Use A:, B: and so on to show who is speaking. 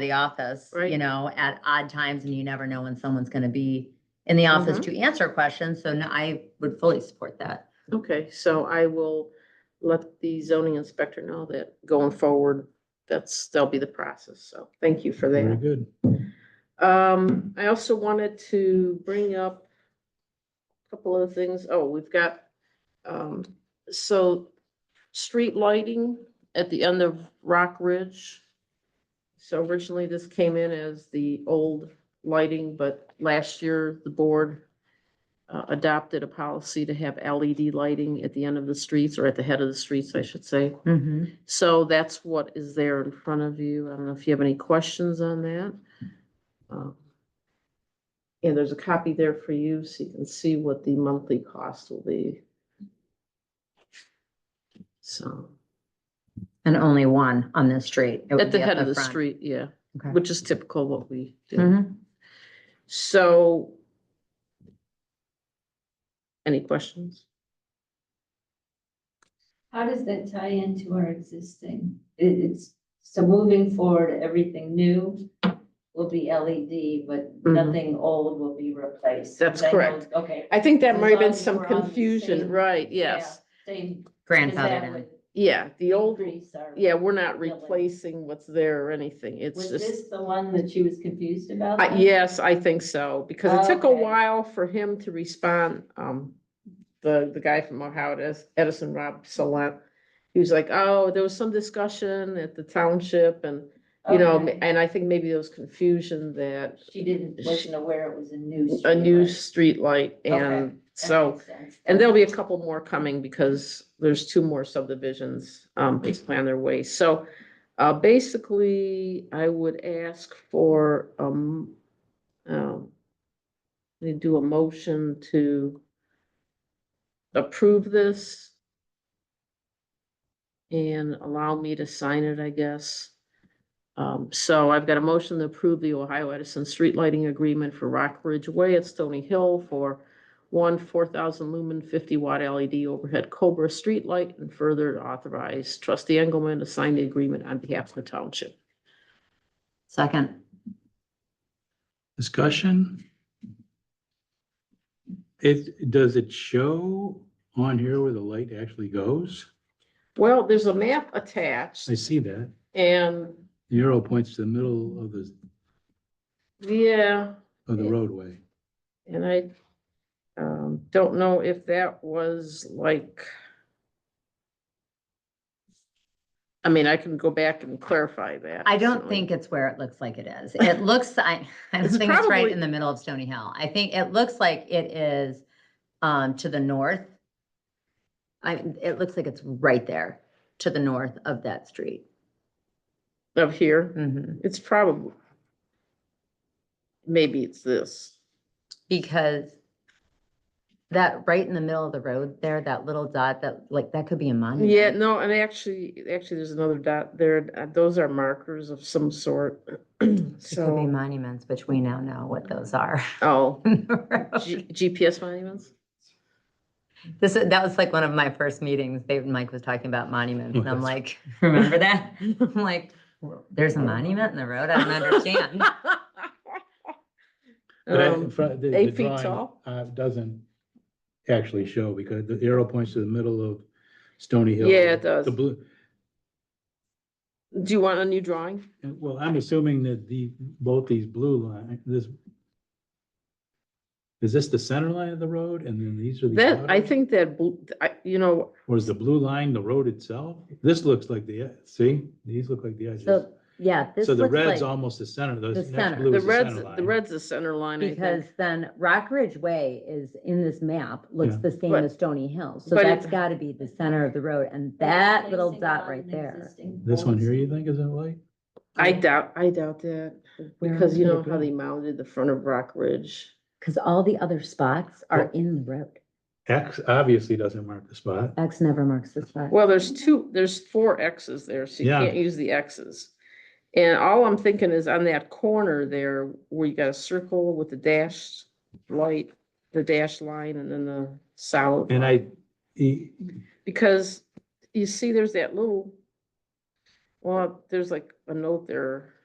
A: the office, you
B: Right.
A: know, at odd times and you never know when someone's gonna be in the office
B: Mhm.
A: to answer questions. So no, I would fully support that.
B: Okay, so I will let the zoning inspector know that going forward, that's, that'll be the process. So thank you for
C: Very
B: that.
C: good.
B: Um, I also wanted to bring up a couple of things. Oh, we've got, um, so street lighting at the end of Rock Ridge. So originally this came in as the old lighting, but last year the board uh, adopted a policy to have LED lighting at the end of the streets or at the head of the streets, I should say.
A: Mhm.
B: So that's what is there in front of you. I don't know if you have any questions on that. Um, And there's a copy there for you so you can see what the monthly cost will be. So,
A: And only one on this street. It would
B: at the
A: be
B: head of the
A: front.
B: street, yeah,
A: Okay.
B: which is typical what we do.
A: Mhm.
B: So any questions?
D: How does that tie into our existing? It- it's, so moving forward, everything new will be LED, but
B: Mhm.
D: nothing old will be replaced.
B: That's
D: Because I know-
B: correct.
D: Okay.
B: I think that
D: As
B: might have been
D: long as
B: some
D: we're on the
B: confusion,
D: same-
B: right,
D: yeah,
B: yes.
D: Same. 'cause
A: Grandfathered
D: that
A: in.
D: would
B: Yeah, the old,
D: increase our-
B: yeah, we're not
D: Really.
B: replacing what's there or anything. It's
D: Was
B: just,
D: this the one that she was confused about?
B: I-
D: then?
B: yes, I think so, because it took a
D: Okay.
B: while for him to respond. Um, the, the guy from Ohio Edis- Edison, Rob Salant. He was like, oh, there was some discussion at the township and, you know,
D: Okay.
B: and I think maybe there was confusion that
D: She didn't, wasn't aware it was a new.
B: a new
D: streetlight.
B: streetlight
D: Okay,
B: and
D: That
B: so.
D: makes sense.
B: And there'll be a couple more coming because there's two more subdivisions, um, basically on their way. So, uh, basically, I would ask for, um, um, we do a motion to approve this and allow me to sign it, I guess. Um, so I've got a motion to approve the Ohio Edison Street Lighting Agreement for Rock Ridge Way at Stony Hill for one four thousand lumen fifty watt LED overhead Cobra streetlight and further authorize trustee Engelman to sign the agreement on behalf of the township.
A: Second.
C: Discussion? It, does it show on here where the light actually goes?
B: Well, there's a map attached
C: I see that.
B: and,
C: The arrow points to the middle of the,
B: yeah,
C: of the roadway.
B: and I um, don't know if that was like I mean, I can go back and clarify that.
A: I don't
B: certainly.
A: think it's where it looks like it is. It looks, I, I don't
B: It's
A: think it's right
B: probably-
A: in the middle of Stony Hill. I think it looks like it is um, to the north. I, it looks like it's right there to the north of that street.
B: Up here,
A: Mhm.
B: it's probably maybe it's this.
A: Because that right in the middle of the road there, that little dot, that like, that could be a monument.
B: Yeah, no, and actually, actually, there's another dot there. uh, Those are markers of some sort.
A: It could be
B: So,
A: monuments, which we now know what those are.
B: oh,
A: in the road.
B: G- GPS monuments?
A: This, is- that was like one of my first meetings. David and Mike was talking about monuments and I'm like, remember that? I'm like, there's a monument in the road? I don't understand.
C: But I-
B: Um,
C: fr- the- the
B: eight feet
C: drawing,
B: tall?
C: uh, Doesn't actually show because the arrow points to the middle of Stony Hill.
B: Yeah, it does.
C: The blue,
B: Do you want a new drawing?
C: and, well, I'm assuming that the, both these blue line, this. Is this the center line of the road and then these are the?
B: That, I
C: outer?
B: think that, bl- I, you know,
C: Or is the blue line the road itself? This looks like the, e- see, these look like the edges.
A: So, yeah, this
C: So the
A: looks
C: red's
A: like,
C: almost the center, the
A: the
C: next
A: center.
C: blue
B: the
C: is the
B: red's,
C: center
B: the
C: line.
B: red's the center line, I
A: because
B: think.
A: then Rock Ridge Way is in this map, looks
C: Yeah.
A: the same
B: But-
A: as Stony Hill. So
B: but it-
A: that's gotta be the center of the road and that little dot right there.
C: This one here, you think is that light?
B: I doubt, I doubt that,
A: Where
B: because you
A: could it
B: know how
A: be?
B: they mounted the front of Rock Ridge.
A: Cause all the other spots are
C: Well-
A: in the road.
C: X obviously doesn't mark the spot.
A: X never marks the spot.
B: Well, there's two, there's four X's there, so you
C: Yeah.
B: can't use the X's. And all I'm thinking is on that corner there, where you got a circle with the dash light, the dash line and then the solid.
C: And I, e-
B: Because you see, there's that little, well, there's like a note there.